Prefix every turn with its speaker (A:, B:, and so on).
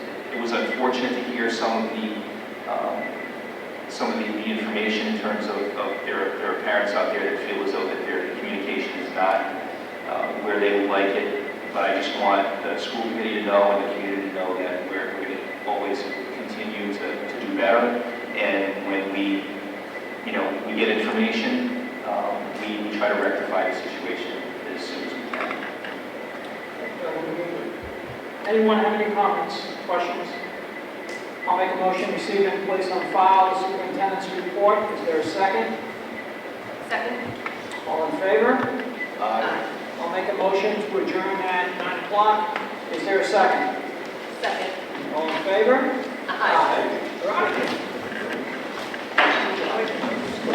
A: it was unfortunate to hear some of the, um, some of the the information in terms of, of there, there are parents out there that feel as though that their communication is not uh, where they would like it. But I just want the school committee to know and the community to know that we're going to always continue to, to do better. And when we, you know, we get information, um, we we try to rectify the situation as soon as we can.
B: Anyone have any comments, questions? I'll make a motion, receive and place on file the superintendent's report. Is there a second?
C: Second?
B: All in favor? I'll make a motion to adjourn at 9 o'clock. Is there a second?
C: Second.
B: All in favor?
C: Aye.
B: We're out of here.